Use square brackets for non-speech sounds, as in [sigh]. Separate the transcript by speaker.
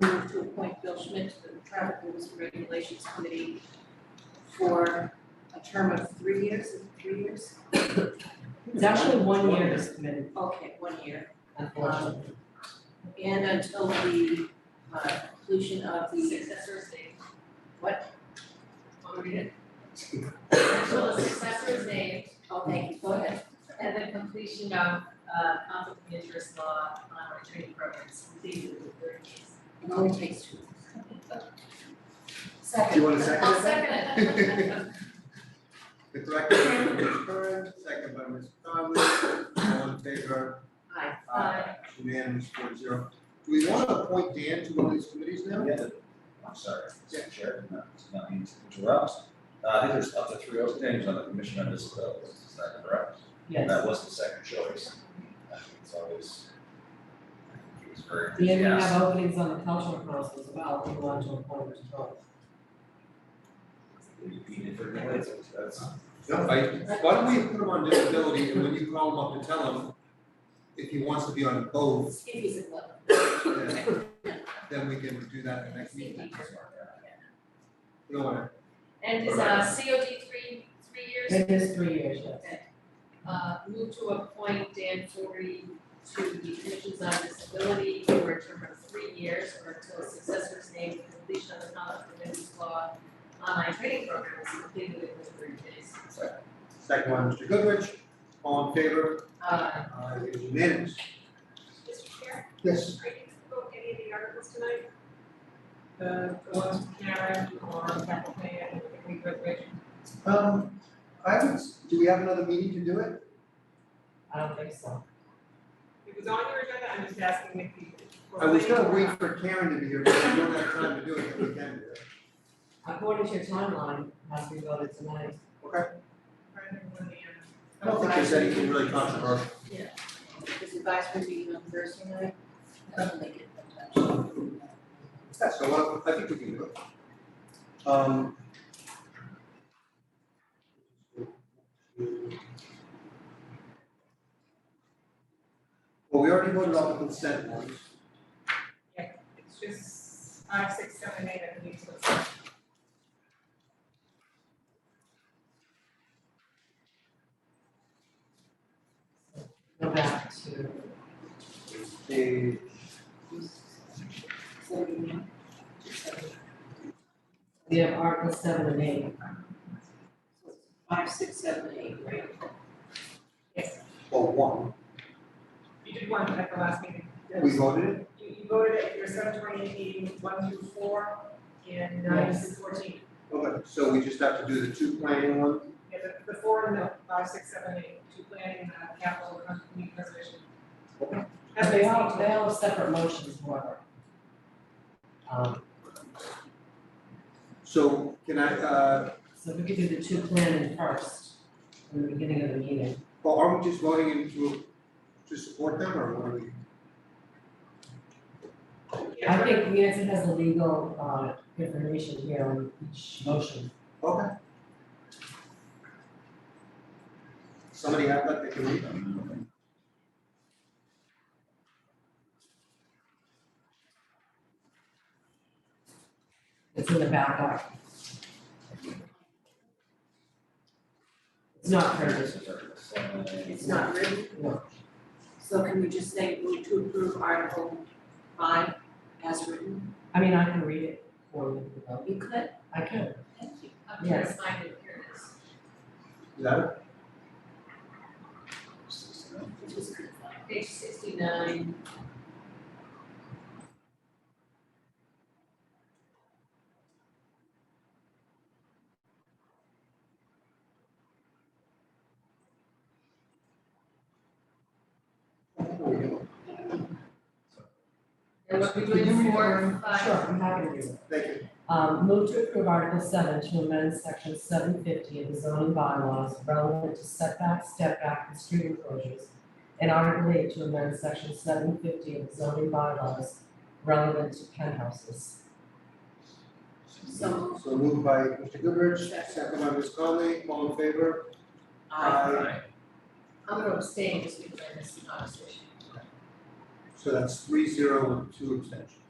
Speaker 1: to appoint Bill Schmidt to the Traffic Rules and Regulations Committee for a term of three years, is it three years?
Speaker 2: It's actually one
Speaker 3: One
Speaker 2: year
Speaker 3: year.
Speaker 2: this committee.
Speaker 1: Okay, one year.
Speaker 3: unfortunately.
Speaker 1: And until the uh, conclusion of the. Successor state. What?
Speaker 4: I'll read it.
Speaker 1: Oh,
Speaker 4: Until a successor is named
Speaker 1: thank you, go ahead.
Speaker 4: and the completion of uh conflict of interest law on our training programs completed within thirty days.
Speaker 1: It only takes two.
Speaker 3: Do you want a second?
Speaker 4: I'll second it.
Speaker 3: [laughs] The director, Ms. Curran, second by Ms. Conley, all in favor?
Speaker 1: Aye.
Speaker 4: Aye.
Speaker 3: Unanimous four zero. Do we want to appoint Dan to one of these committees now?
Speaker 5: Yeah, the- I'm sorry, Mr. Chair, not, not mean to interrupt. Uh, I think there's up to three open names on the commission on disabilities, is that correct? And
Speaker 2: Yes.
Speaker 5: That was the second choice. I think It's always. I think He was very
Speaker 2: And we
Speaker 5: enthusiastic.
Speaker 2: have openings on the cultural council as well, if you want to appoint as well.
Speaker 5: We beat it for minutes, that's.
Speaker 3: No, I- why don't we put him on disability and when you call him up and tell him if he wants to be on both,
Speaker 1: If he's in love.
Speaker 3: then, then we can do that at the next meeting. We don't wanna-
Speaker 4: And is uh COD three, three years,
Speaker 2: It is three years, yes.
Speaker 4: uh move to appoint Dan Forey to the Commissions on Disability for a term of three years or until a successor is named and completion of the conflict of interest law on our training programs completed within thirty days.
Speaker 3: Second one, Mr. Goodrich, all in favor?
Speaker 4: Uh,
Speaker 3: Uh, it is unanimous.
Speaker 6: Mr. Chair,
Speaker 3: Yes.
Speaker 6: are you vote any of the articles tonight?
Speaker 1: uh,
Speaker 4: the ones Karen or Kathleen, I think we graduated.
Speaker 3: Um, I would, s- do we have another meeting to do it?
Speaker 2: I don't think so.
Speaker 6: It was on your agenda, I'm just asking if you.
Speaker 3: I was gonna wait for Karen to be here, but if we don't have time to do it, then we can do it.
Speaker 2: According to your timeline, it has to be voted tonight.
Speaker 3: Okay.
Speaker 6: For everyone in the end.
Speaker 3: I don't think there's anything really controversial.
Speaker 1: His advisory meeting on Thursday night, that'll make it.
Speaker 3: Yeah, so what- I think we can do it. Um. Well, we already voted on the consent ones.
Speaker 6: It's just five, six, seven, eight, I believe, so it's-
Speaker 2: Go back to,
Speaker 3: They-
Speaker 2: we have Article seven and eight.
Speaker 1: Five, six, seven, eight, right?
Speaker 3: well, one,
Speaker 6: you did one at the last meeting.
Speaker 3: we voted it,
Speaker 6: You, you voted at your seven twenty-eight meeting, one through four, and nine through fourteen.
Speaker 3: okay, so we just have to do the two planning ones.
Speaker 6: Yeah, the, the four and the five, six, seven, eight, two planning, uh, capital, and community preservation.
Speaker 3: Okay.
Speaker 6: That's
Speaker 2: They all,
Speaker 6: basically-
Speaker 2: they all have separate motions, however. Um,
Speaker 3: So can I, uh,
Speaker 2: so we could do the two planning first, in the beginning of the meeting.
Speaker 3: well, are we just voting in to, to support them or what are we?
Speaker 6: Yeah,
Speaker 2: I think Nancy has the legal, uh, information here on each motion.
Speaker 3: Okay. Somebody have that, they can read.
Speaker 2: It's in the backup. It's not printed,
Speaker 5: This is Article seven.
Speaker 1: It's not written,
Speaker 2: no.
Speaker 1: so can we just say move to approve Article five as written?
Speaker 2: I mean, I can read it for you, if you want.
Speaker 1: You could,
Speaker 2: I can.
Speaker 1: thank you.
Speaker 4: I'm trying to find it, here it is.
Speaker 3: Is that it?
Speaker 5: Sixty-nine.
Speaker 1: It was good.
Speaker 4: Page sixty-nine, and what we
Speaker 2: Can you read
Speaker 4: doing
Speaker 2: it?
Speaker 4: four,
Speaker 2: Sure,
Speaker 4: five,
Speaker 2: I'm happy to do it.
Speaker 3: Thank you.
Speaker 2: Um, move to approve Article seven to amend section seven fifty of the zoning bylaws relevant to setback, step back, and street enclosures. And Article eight to amend section seven fifty of the zoning bylaws relevant to penthouses.
Speaker 1: So,
Speaker 3: So moved by Mr. Goodrich, second by Ms. Conley, all in favor?
Speaker 1: I,
Speaker 4: I'm gonna abstain just because I missed the conversation.
Speaker 3: So that's three zero and two abstentions.